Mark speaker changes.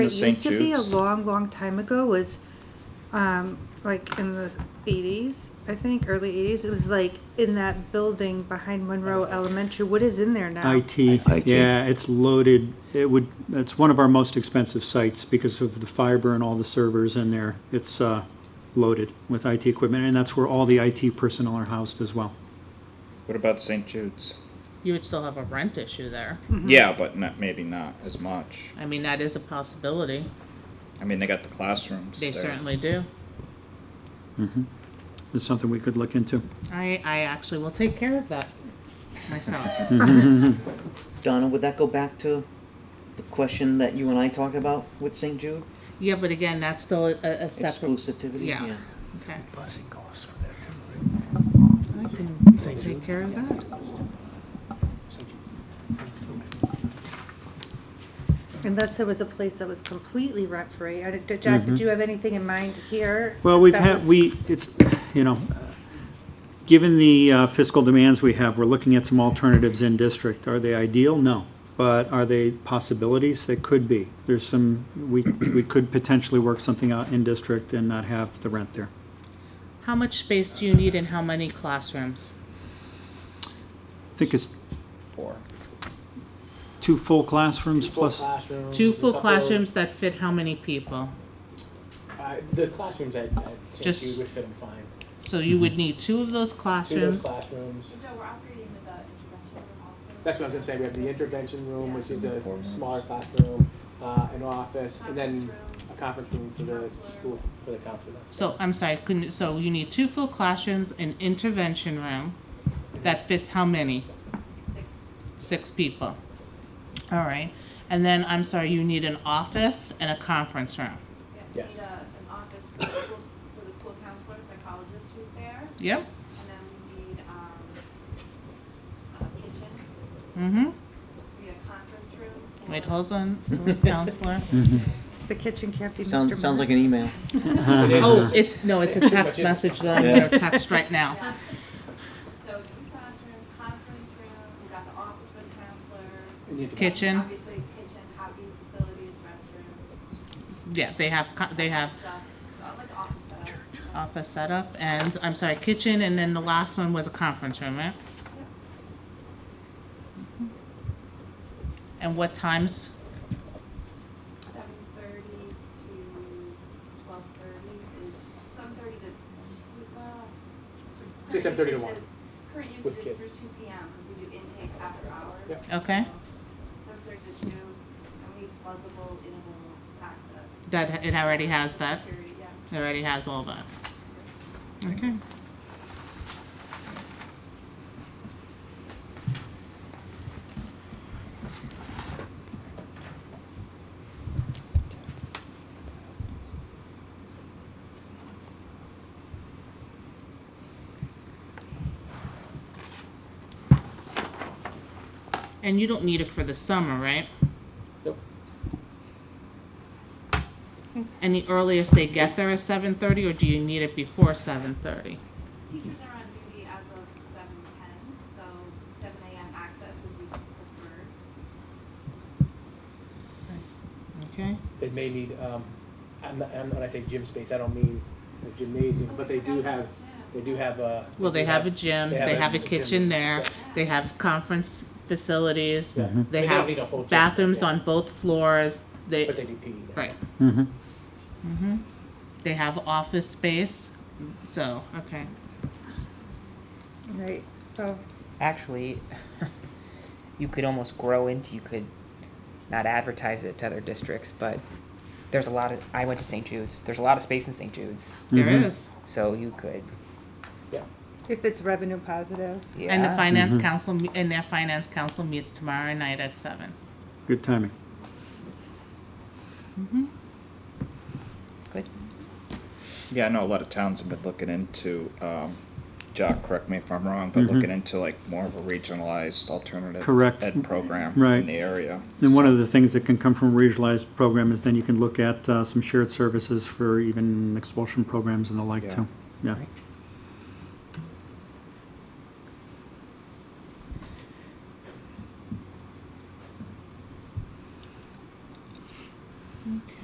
Speaker 1: It
Speaker 2: It
Speaker 1: St.
Speaker 2: used to be a
Speaker 1: Jude's?
Speaker 2: long, long time ago was, um, like in the eighties, I think, early eighties, it was like in that building behind Monroe Elementary, what is in there now?
Speaker 3: IT.
Speaker 4: IT.
Speaker 3: Yeah, it's loaded. It would, it's one of our most expensive sites because of the fiber and all the servers in there. It's uh, loaded with IT equipment, and that's where all the IT personnel are housed as well.
Speaker 1: What about St. Jude's?
Speaker 5: You would still have a rent issue there.
Speaker 2: Mm-hmm.
Speaker 1: Yeah, but not, maybe not as much.
Speaker 5: I mean, that is a possibility.
Speaker 1: I mean, they got the classrooms.
Speaker 5: They
Speaker 1: there.
Speaker 5: certainly do.
Speaker 3: It's something we could look into.
Speaker 5: I, I actually will take care of that myself.
Speaker 6: Donna, would that go back to the question that you and I talked about with St. Jude?
Speaker 5: yeah, but again, that's still a, a separate.
Speaker 6: Exclusivity?
Speaker 5: Yeah. Okay.
Speaker 7: busing costs for that too, right?
Speaker 5: I can take care of that.
Speaker 2: Unless there was a place that was completely rent free. I, did- Jack, did you have anything in mind here?
Speaker 3: Mm-hmm. Well, we've
Speaker 2: that
Speaker 3: had,
Speaker 2: was-
Speaker 3: we, it's, you know, given the uh, fiscal demands we have, we're looking at some alternatives in district. Are they ideal? No. But are they possibilities? They could be. There's some, we, we could potentially work something out in district and not have the rent there.
Speaker 5: How much space do you need and how many classrooms?
Speaker 3: I think it's
Speaker 1: Four.
Speaker 3: two full classrooms plus,
Speaker 8: classrooms,
Speaker 5: Two
Speaker 8: a
Speaker 5: full
Speaker 8: couple-
Speaker 5: classrooms that fit how many people?
Speaker 8: Uh, the classrooms at, at St.
Speaker 5: Just-
Speaker 8: Jude would fit them fine.
Speaker 5: So you
Speaker 7: Mm-hmm.
Speaker 5: would need two of those
Speaker 8: Two of those
Speaker 5: classrooms.
Speaker 8: classrooms.
Speaker 9: Joe, we're operating without intervention also.
Speaker 8: That's what I was gonna say. We have the intervention room, which is a smaller classroom, uh, an office, and then a conference room for the school for the counselor.
Speaker 5: So I'm sorry, couldn't, so you need two full classrooms, an intervention room that fits how many?
Speaker 9: Six.
Speaker 5: Six people. All right. And then I'm sorry, you need an office and a conference room.
Speaker 9: Yeah,
Speaker 8: Yes.
Speaker 9: we need a, an office for the school, for the school counselor, psychologist who's there,
Speaker 5: Yep.
Speaker 9: and then we need, um, a kitchen,
Speaker 5: Mm-hmm.
Speaker 9: we need a conference room. for-
Speaker 5: Wait, hold on, school counselor.
Speaker 2: The kitchen can't be Mr.
Speaker 6: Sounds, sounds like an
Speaker 2: Manners.
Speaker 6: email.
Speaker 3: Uh-huh.
Speaker 8: It is-
Speaker 5: Oh, it's, no, it's a text message that I'm gonna text right now.
Speaker 9: Yeah. So two classrooms, conference room, we got the office for the counselor.
Speaker 8: and you have to-
Speaker 5: Kitchen.
Speaker 9: Obviously, kitchen, copy facilities, restrooms,
Speaker 5: Yeah, they have, co- they have
Speaker 9: stuff, so I'd like the office set up.
Speaker 5: office setup and, I'm sorry, kitchen, and then the last one was a conference room, right? And what times?
Speaker 9: Seven thirty to twelve thirty is, seven thirty to two, well.
Speaker 8: Say
Speaker 9: current
Speaker 8: 7:30 to
Speaker 9: usage
Speaker 8: 1.
Speaker 9: is- Current
Speaker 8: With
Speaker 9: usage is through
Speaker 8: kids.
Speaker 9: two P M, because we do intakes after hours.
Speaker 8: Yep.
Speaker 5: Okay.
Speaker 9: Seven thirty to two, and we need plausible interval access.
Speaker 5: That, it already has that,
Speaker 9: Security, yeah.
Speaker 5: it already has all that. Okay. And you don't need it for the summer, right?
Speaker 8: Nope.
Speaker 5: And the earliest they get there is seven thirty, or do you need it before seven thirty?
Speaker 9: Teachers are on duty as of seven ten, so seven A M access would be preferred.
Speaker 5: Okay,
Speaker 8: They may need. Um, I'm, not- I'm, when I say gym space, I don't mean the gymnasium, but they do have. They do have a.
Speaker 5: well, they have a gym, they have a kitchen there, they have conference facilities,
Speaker 8: Yeah. Mhm.
Speaker 5: they
Speaker 8: They don't
Speaker 5: have
Speaker 8: need a whole gym,
Speaker 5: bathrooms
Speaker 8: yeah.
Speaker 5: on both floors, they,
Speaker 8: But they do PE. there.
Speaker 5: right,
Speaker 3: Mhm.
Speaker 5: they have office space, so, okay.
Speaker 2: Right, so,
Speaker 10: actually you could almost grow into you could not advertise it to other districts but there's a lot of i went to st jude's there's a lot of space in st jude's
Speaker 5: There is,
Speaker 10: so you could
Speaker 8: Yeah.
Speaker 2: if it's revenue positive.
Speaker 10: yeah
Speaker 5: and the finance council, me- and their finance council meets tomorrow night at seven.
Speaker 3: Good timing.
Speaker 10: good
Speaker 1: Yeah, I know a lot of towns have been looking into, um, Jock, correct me if I'm wrong, but looking into like more of a regionalized alternative
Speaker 3: Mm-hmm. Correct.
Speaker 1: ed program
Speaker 3: Right.
Speaker 1: in the area.
Speaker 3: And one of the things that can come from a regionalized program is then you can look at uh, some shared services for even expulsion programs and the like
Speaker 1: Yeah.
Speaker 3: too. Yeah.
Speaker 10: Right.